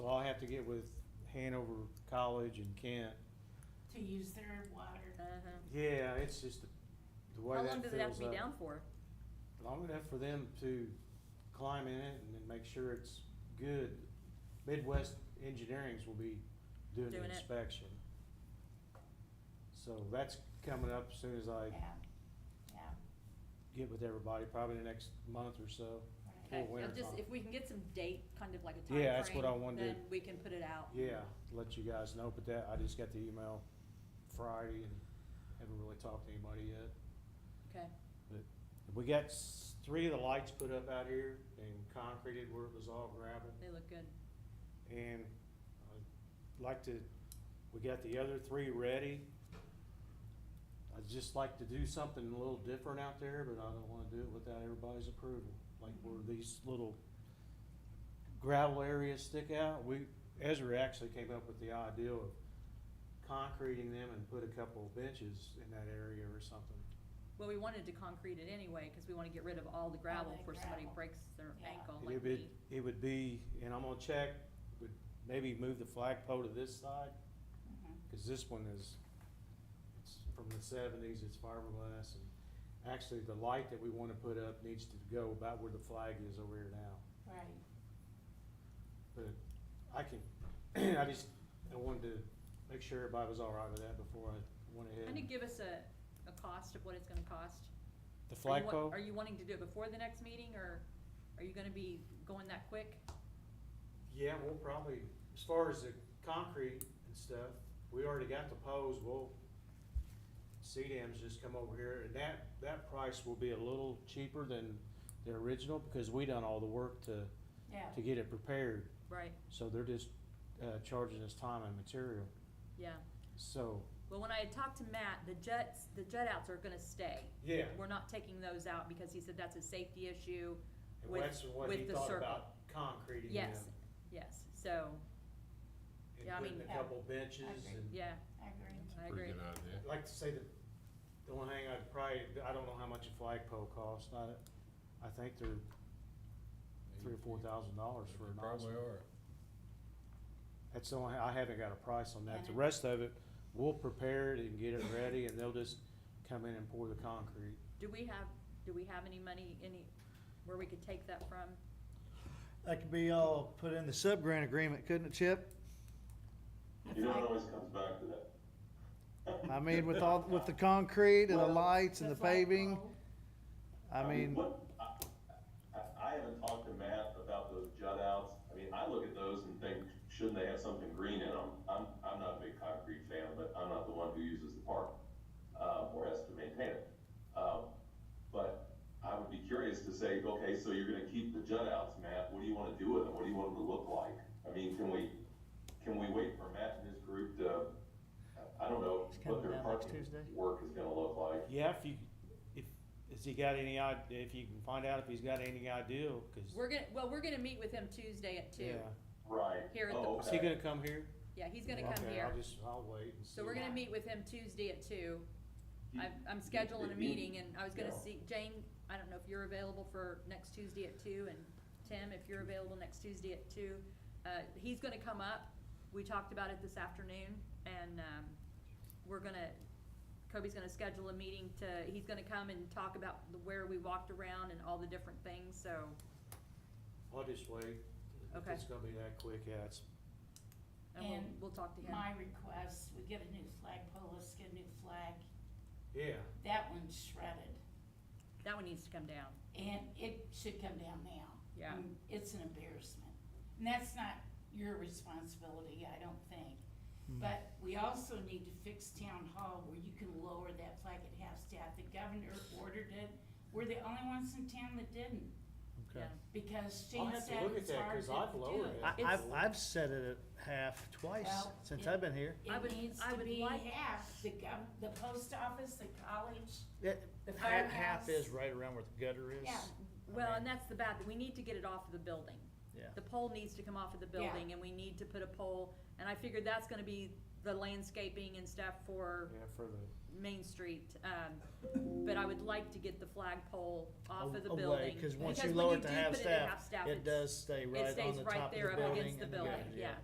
have to get with Hanover College and Kent. to use their water. Uh-huh. Yeah, it's just the, the way How that fills long up. does it have to be down for? Long enough for them to climb in it and then make sure it's good. Midwest Engineering's will be doing the Doing it. inspection. So that's coming up as soon as I Yeah, yeah, get with everybody, probably the next month or so. right. Okay, Well, winter I'll just, time. if we can get some date, kind of like a Yeah, that's what I timeframe, wanted to- then we can put it out. Yeah, let you guys know, but that, I just got the email Friday and haven't really talked to anybody yet. Okay, We got s- three of the lights put up out here and concreted where it was all gravel. they look good. And I'd like to, we got the other three ready. I'd just like to do something a little different out there, but I don't wanna do it without everybody's approval. Like where these little gravel areas stick out, we, Ezra actually came up with the idea of concreting them and put a couple of benches in that area or something. Well, we wanted to concrete it anyway, cause we wanna get rid of all the gravel the before somebody gravel. breaks their Yeah. ankle It like would, me. be- it would be, and I'm gonna check, would maybe move the flagpole to this side, Mhm. Cause this one is, it's from the seventies, it's fiberglass and actually the light that we wanna put up needs to go about where the flag is over here now. Right, But I can, I just, I wanted to make sure everybody was all right with that before I went Kinda ahead. give us a, a cost of what it's gonna cost. The Are you wa- flagpole, Are you wanting to do it before the next meeting, or are you gonna be going that quick? yeah, we'll probably, as far as the concrete and stuff, we already got the poles, we'll, CDM's just come over here and that, that price will be a little cheaper than the original because we done all the work to yeah, to get it prepared, Right, so they're just, uh, charging us time and material, yeah. so. Well, when I had talked to Matt, the jets, the jet outs are gonna stay. Yeah. We're not taking those out because he said that's a safety issue. And With- that's what with he the thought circle. about concreting them, Yes, yes, so, yeah, I and putting mean- a couple benches agree. and, yeah, I agree. I agree. Pretty good idea. I'd like to say that, the only thing I'd probably, I don't know how much a flagpole costs, I, I think they're three or four thousand dollars for They a nice Probably one. are. That's the only, I haven't got a price on that, the And- rest of it, we'll prepare it and get it ready, and they'll just come in and pour the concrete. Do we have, do we have any money, any, where we could take that from? That could be all put in the sub-grant agreement, couldn't it, Chip? You know, it always comes back to that. I mean, with all, with the concrete and the Well, lights and the paving, flagpole. I mean, what- I, I, I haven't talked to Matt about those jut outs. I mean, I look at those and think, shouldn't they have something green in them? I'm, I'm not a big concrete fan, but I'm not the one who uses the park, uh, or has to maintain it. Um, but I would be curious to say, okay, so you're gonna keep the jut outs, Matt. What do you wanna do with them? What do you want them to look like? I mean, can we, can we wait for Matt and his group to, I I don't know, It's coming what their down next parking Tuesday. work is gonna look like? Yeah, if you, if, has he got any idea, if you can find out if he's got any idea, cause, We're gonna, well, we're gonna meet with him Tuesday at two. yeah. Right. Here at the- Oh, Is he okay. gonna come here? Yeah, he's gonna come Okay, here. I'll just, I'll wait and see. So we're gonna meet with him Tuesday at two. I'm, I'm scheduling a meeting and I was gonna see, Jane, I don't know if you're available for next Tuesday at two and Tim, if you're available next Tuesday at two. Uh, he's gonna come up. We talked about it this afternoon and, um, we're gonna, Kobe's gonna schedule a meeting to, he's gonna come and talk about the- where we walked around and all the different things, so, I'll just wait. If Okay. It's gonna be that quick, yeah, it's, and we'll, And we'll talk to him. My request, we get a new flagpole, let's get a new flag. yeah, That one's shredded, That one needs to come down, and it should come down now. yeah. Mm, It's an embarrassment, and that's not your responsibility, I don't think. Hmm. But we also need to fix town hall where you can lower that flag at half staff. The governor ordered it. We're the only ones in town that didn't, okay. because I'll Shane have to said look at it's that, hard 'cause to I've do lowered it. it. I, I've, It's- I've set it at half twice Well, since yeah. I've been here. I It would- needs I to would be like- half, the gov, the post office, the college, It, the half, firehouse. half is right around where the gutter is. Yeah. Well, mean- and that's the bad, thing. we need to get it off of the building. Yeah. The pole needs to come off of the Yeah. building and we need to put a pole, and I figured that's gonna be the landscaping and stuff for yeah, for the, Main Street. Um, but I would like to get get the flagpole off of the Away, building. Cause once you when lower it to do half put it at staff, it it's- does stay It right stays on the right top of the there up building. against the and building, gutter, yeah.